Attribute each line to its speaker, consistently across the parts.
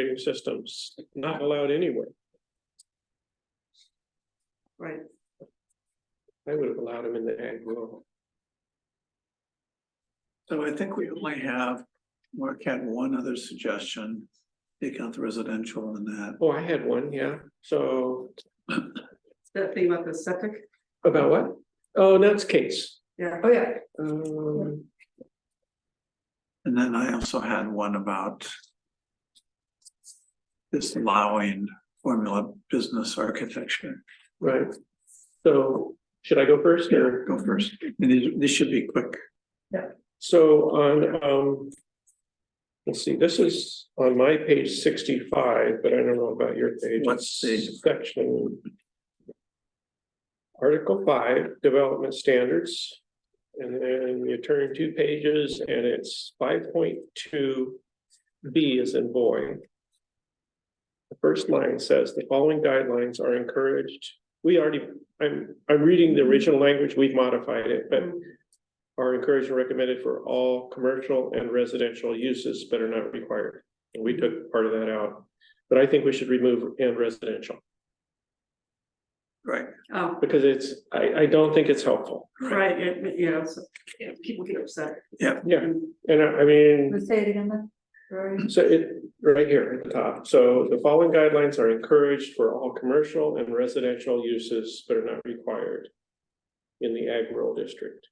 Speaker 1: operating systems, not allowed anywhere.
Speaker 2: Right,
Speaker 1: I would have allowed them in the ag world.
Speaker 3: So I think we only have, Mark had one other suggestion, take out the residential and that.
Speaker 1: Oh, I had one, yeah, so
Speaker 2: that thing about the septic,
Speaker 1: about what? Oh, that's case.
Speaker 2: yeah, oh, yeah,
Speaker 1: Um,
Speaker 3: And then I also had one about disallowing formula business architecture.
Speaker 1: right. So should I go first or?
Speaker 3: Go first. And these, these should be quick.
Speaker 1: So on, um. Let's see, this is on my page sixty-five, but I don't know about your page.
Speaker 3: What
Speaker 1: It's
Speaker 3: page?
Speaker 1: Section. Article five, development standards. And then you turn two pages and it's five point two B is in boy. The first line says the following guidelines are encouraged. We already, I'm, I'm reading the original language, we've modified it, but
Speaker 2: Mm-hmm.
Speaker 1: are encouraged and recommended for all commercial and residential uses, but are not required. And we took part of that out, but I think we should remove and residential,
Speaker 3: Right.
Speaker 2: oh,
Speaker 1: because it's, I, I don't think it's helpful.
Speaker 2: right, it- yeah, so, yeah, people get upset. Mm-hmm.
Speaker 1: Yeah, and I, I mean.
Speaker 2: Let's say it again, then. Right.
Speaker 1: So it, right here at the top, so the following guidelines are encouraged for all commercial and residential uses, but are not required. In the ag rural district,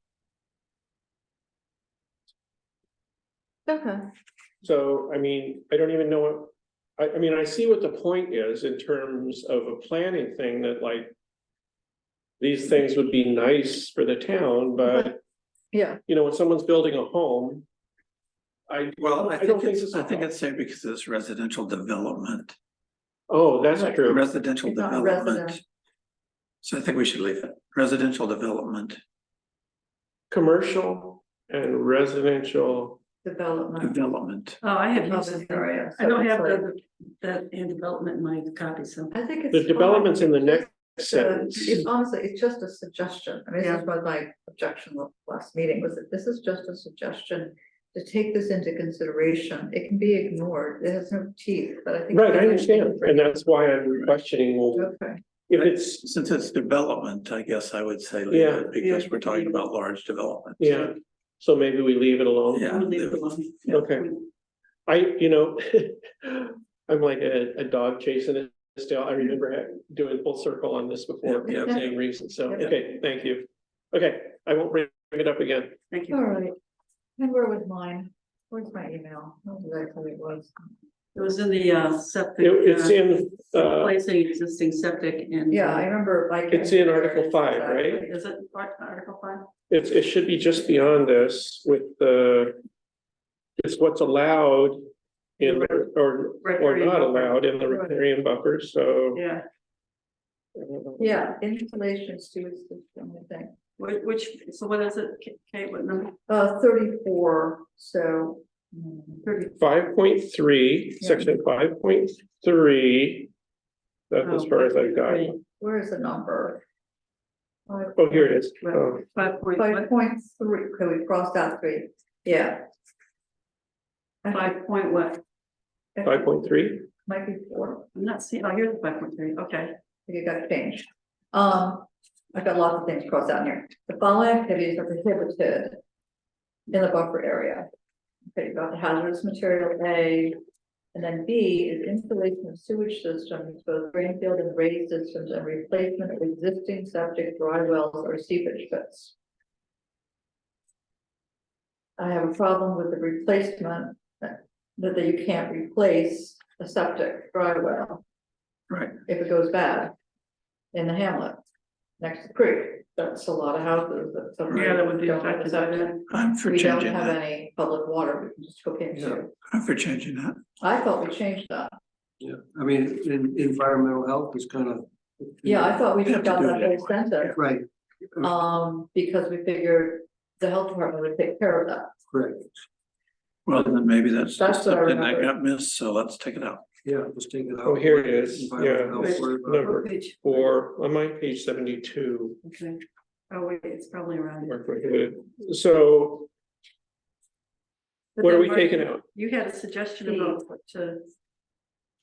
Speaker 4: Okay,
Speaker 1: so I mean, I don't even know what. I, I mean, I see what the point is in terms of a planning thing that like. These things would be nice for the town, but
Speaker 4: yeah,
Speaker 1: you know, when someone's building a home. I,
Speaker 3: Well,
Speaker 1: I
Speaker 3: I
Speaker 1: don't
Speaker 3: think
Speaker 1: think
Speaker 3: it's,
Speaker 1: it's
Speaker 3: I think
Speaker 1: allowed.
Speaker 3: it's safe because it's residential development,
Speaker 1: oh, that's
Speaker 4: Right.
Speaker 1: true,
Speaker 3: residential
Speaker 4: It's not
Speaker 3: development.
Speaker 4: resident.
Speaker 3: So I think we should leave it, residential development,
Speaker 1: commercial and residential.
Speaker 4: development.
Speaker 3: development.
Speaker 2: Oh, I had,
Speaker 4: Oh,
Speaker 2: used
Speaker 4: that's
Speaker 2: it.
Speaker 4: right, yeah.
Speaker 2: I don't
Speaker 4: So
Speaker 2: have
Speaker 4: it's
Speaker 2: the, that in development in my copy, so,
Speaker 4: I think it's.
Speaker 1: The development's in the next
Speaker 4: fine.
Speaker 1: sentence.
Speaker 4: It's honestly, it's just a suggestion. I mean, this
Speaker 2: Yeah.
Speaker 4: is what my objection was last meeting was that this is just a suggestion. To take this into consideration, it can be ignored. It has no teeth, but I think.
Speaker 1: Right, I understand, and that's why I'm questioning, well,
Speaker 4: Okay,
Speaker 1: if it's,
Speaker 3: Since it's development, I guess I would say leave
Speaker 1: Yeah.
Speaker 3: it because we're talking about large development.
Speaker 1: yeah, so maybe we leave it alone.
Speaker 3: Yeah.
Speaker 2: we'll leave it alone.
Speaker 1: Okay, I, you know, I'm like a, a dog chasing a tail, I remember ha- doing full circle on this before, for
Speaker 3: Yeah,
Speaker 1: the
Speaker 4: yeah.
Speaker 1: same reason, so,
Speaker 4: Yeah.
Speaker 1: okay, thank you. Okay, I won't bring it up again,
Speaker 2: Thank
Speaker 4: all
Speaker 2: you.
Speaker 4: right. And where was mine? Where's my email? I don't know Exactly, it was.
Speaker 2: It was in the uh, septic.
Speaker 1: It- it's
Speaker 2: uh,
Speaker 1: in, uh,
Speaker 2: Replacing existing septic and. uh,
Speaker 4: Yeah, I remember like.
Speaker 1: It's in Article five, right?
Speaker 2: Is it part article five?
Speaker 1: it, it should be just beyond this with the. It's what's allowed in, the- or, or
Speaker 2: Recreating
Speaker 1: not
Speaker 2: buffer.
Speaker 1: allowed in the riparian buffer, so.
Speaker 2: Yeah,
Speaker 4: Yeah, insulation sewage system, I think.
Speaker 2: which, which, so what is it, K- Kate, what number?
Speaker 4: Uh, thirty-four, so. mm, Thirty,
Speaker 1: Five point three,
Speaker 4: Yeah.
Speaker 1: section five point three. That's as
Speaker 2: Oh,
Speaker 1: far as I've got.
Speaker 4: where is the number? Five-
Speaker 1: Oh, here it is.
Speaker 2: Right.
Speaker 1: Oh,
Speaker 2: Five point,
Speaker 4: Five
Speaker 2: what?
Speaker 4: point three, okay, we crossed out three, yeah. I think-
Speaker 2: Five point what?
Speaker 4: I
Speaker 1: five
Speaker 4: think
Speaker 1: point three,
Speaker 4: it Might be four,
Speaker 2: I'm not seeing, oh, here's the five point three, okay.
Speaker 4: you got changed. Um, I've got lots of things crossed out here. The following activities are prohibited in the buffer area. Okay, about hazardous material A, and then B is installation of sewage systems, both drain field and raised systems, and replacement of existing septic dry wells or seepage pits. I have a problem with the replacement, that, that you can't replace a septic dry well
Speaker 3: Right,
Speaker 4: if it goes bad in the hamlet next to the creek, that's a lot of houses that. some
Speaker 2: Yeah, that would be
Speaker 4: don't have
Speaker 2: affected by
Speaker 4: septic.
Speaker 2: that.
Speaker 3: I'm for
Speaker 4: We don't
Speaker 3: changing
Speaker 4: have
Speaker 3: that,
Speaker 4: any public water we can just hook
Speaker 5: Yeah.
Speaker 4: into.
Speaker 3: I'm for changing that.
Speaker 4: I thought we changed that.
Speaker 5: Yeah, I mean, in environmental health is kind of.
Speaker 4: Yeah, I thought we
Speaker 3: We have to
Speaker 4: took out
Speaker 3: do
Speaker 4: that
Speaker 3: it
Speaker 4: whole
Speaker 3: anyway.
Speaker 4: sentence,
Speaker 5: Right,
Speaker 4: um, because we figured the health department would take care of that.
Speaker 5: correct,
Speaker 3: Well, then maybe that's
Speaker 4: That's what I
Speaker 3: something that
Speaker 4: remember.
Speaker 3: got missed, so let's take it out.
Speaker 5: yeah, just take it out.
Speaker 1: Oh, here it is, yeah.
Speaker 5: Environmental health, worry about-
Speaker 1: Number.
Speaker 2: What page?
Speaker 1: four, on my page seventy-two,
Speaker 2: Oh, Okay, oh, wait, it's probably around.
Speaker 1: are prohibited. So
Speaker 2: But
Speaker 1: what are
Speaker 2: then
Speaker 1: we
Speaker 2: Mark,
Speaker 1: taking out?
Speaker 2: You had a suggestion about what to,